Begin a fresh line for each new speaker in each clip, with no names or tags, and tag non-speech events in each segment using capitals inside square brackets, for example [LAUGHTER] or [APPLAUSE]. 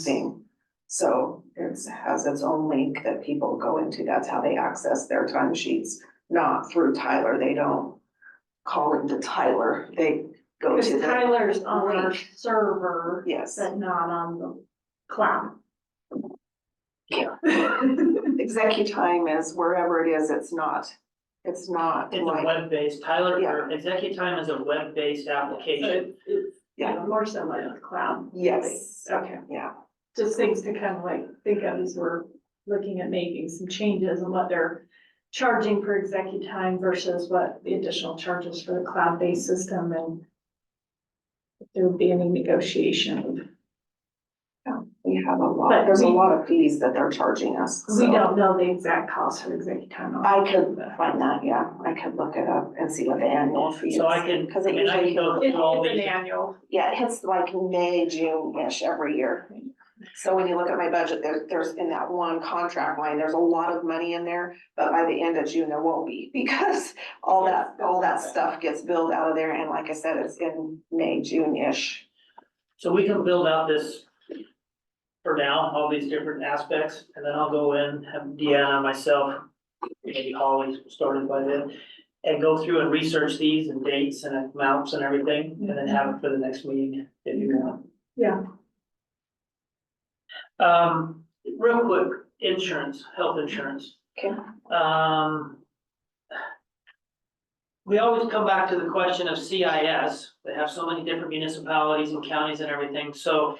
Same. So it has its own link that people go into. That's how they access their time sheets, not through Tyler. They don't call into Tyler. They go to
Because
the,
Tyler's on our server,
yes,
but not on the cloud.
Yeah. execu time is wherever it is, it's not, it's not
It's a
like,
web-based, Tyler, or Executive Time is a web-based application.
So [LAUGHS] it's,
Yeah.
you know, more so like the cloud.
yes,
Okay,
yeah.
just things to kind of like think of as we're looking at making some changes and what they're charging for executive time versus what the additional charges for the cloud-based system and if there would be any negotiation.
We have a lot,
But
there's a
we-
lot of fees that they're charging us,
We
so.
don't know the exact cost for executive time.
I could find that, yeah. I could look it up and see what the annual fee is.
So I can,
Cause
I
it
mean, I can
usually,
go
It is
through all
an
these.
annual.
yeah, it hits like May, June-ish every year. So when you look at my budget, there, there's in that one contract line, there's a lot of money in there, but by the end of June, there won't be [LAUGHS] because all that, all that stuff gets billed out of there. And like I said, it's in May, June-ish.
So we can build out this for now, all these different aspects, and then I'll go in, have Deanna, myself, maybe Holly started by then, and go through and research these and dates and amounts and everything, and then have it for the next meeting if you want.
Yeah.
Um, real quick, insurance, health insurance.
Okay.
Um. We always come back to the question of CIS, they have so many different municipalities and counties and everything, so.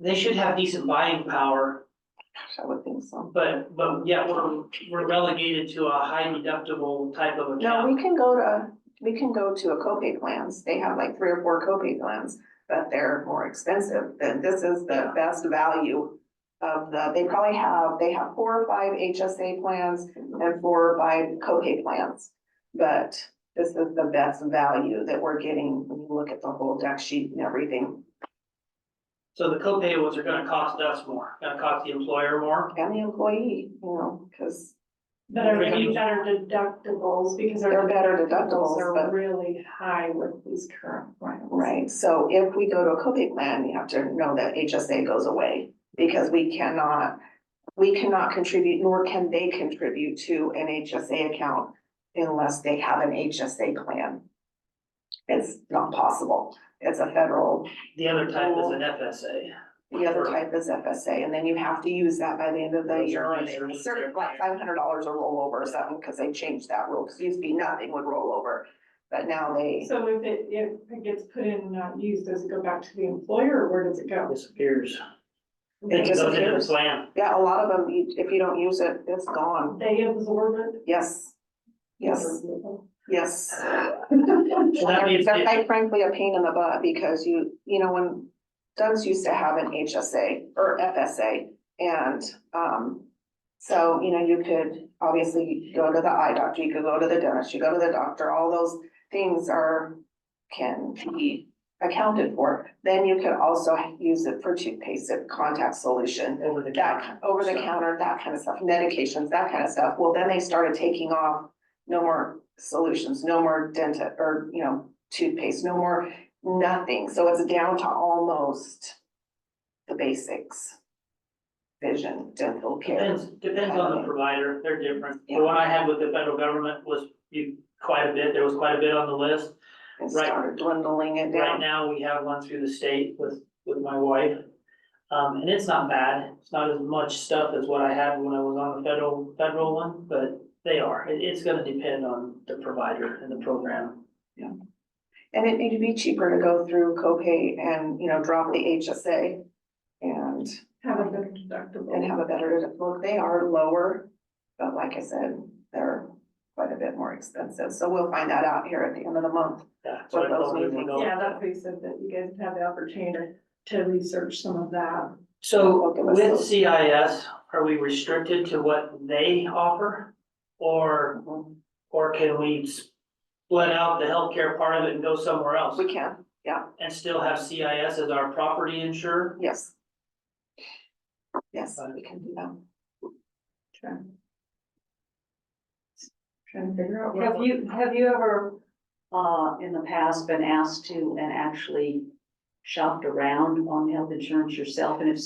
They should have decent buying power,
Gosh, I would think so.
but, but yet we're, we're relegated to a high deductible type of
No,
account.
we can go to, we can go to a copay plans. They have like three or four copay plans, but they're more expensive. Then this is the
Yeah.
best value of the, they probably have, they have four or five HSA plans and four or five copay plans. But this is the best value that we're getting when you look at the whole deck sheet and everything
So the copay was are gonna cost us more, gonna cost the employer more.
and the employee, you know, because
Better,
Right.
be better deductibles because
They're
our
better deductibles,
deductibles
but-
are really high with these current plans.
Right, so if we go to a copay plan, you have to know that HSA goes away because we cannot, we cannot contribute, nor can they contribute to an HSA account unless they have an HSA plan. It's not possible. It's a federal,
The other type is an FSA.
the other type is FSA, and then you have to use that by the end of the
Those
year.
are
and
insurance.
it's Certain, like five hundred dollars a rollover or something, because they changed that rule, because it used to be nothing would roll over. But now they,
So if it, if it gets put in and not used, does it go back to the employer or where does it go?
Disappears.
It
It goes into the
disappears. [LAUGHS]
plan.
yeah, a lot of them, you- if you don't use it, it's gone.
They absorb it?
Yes, yes, yes.
So that means
They're
it-
quite frankly a pain in the butt because you, you know, when Doug's used to have an HSA or FSA and, um, so, you know, you could obviously go to the eye doctor, you could go to the dentist, you go to the doctor, all those things are, can be accounted for. Then you could also use it for toothpaste, contact solution,
over the
that, over the
So-
counter, that kind of stuff, medications, that kind of stuff. Well, then they started taking off no more solutions, no more dental, or, you know, toothpaste, no more nothing. So it's down to almost the basics. Vision, dental care.
Depends, depends on the provider, they're different.
Yeah.
The one I had with the federal government was you- quite a bit, there was quite a bit on the list.
It
right.
started dwindling it
Right
down.
now, we have one through the state with, with my wife. Um, and it's not bad, it's not as much stuff as what I had when I was on the federal, federal one, but they are. It, it's gonna depend on the provider and the program.
And it needed to be cheaper to go through copay and, you know, drop the HSA. And
Have a better
and
deductible.
have a better look. They are lower, but like I said, they're quite a bit more expensive. So we'll find that out here at the end of the month.
Yeah, so I
What those
probably would
meetings-
go-
Yeah, that's what you said, that you guys have the opportunity to research some of that.
So
Okay, let's go.
with CIS, are we restricted to what they offer? Or Or can we split out the healthcare part of it and go somewhere else
We can,
and still have CIS as our property insurer?
yes. Yes, we can do that.
Trying to figure out.
Have you, have you ever, uh, in the past been asked to and actually shopped around on health insurance yourself? And if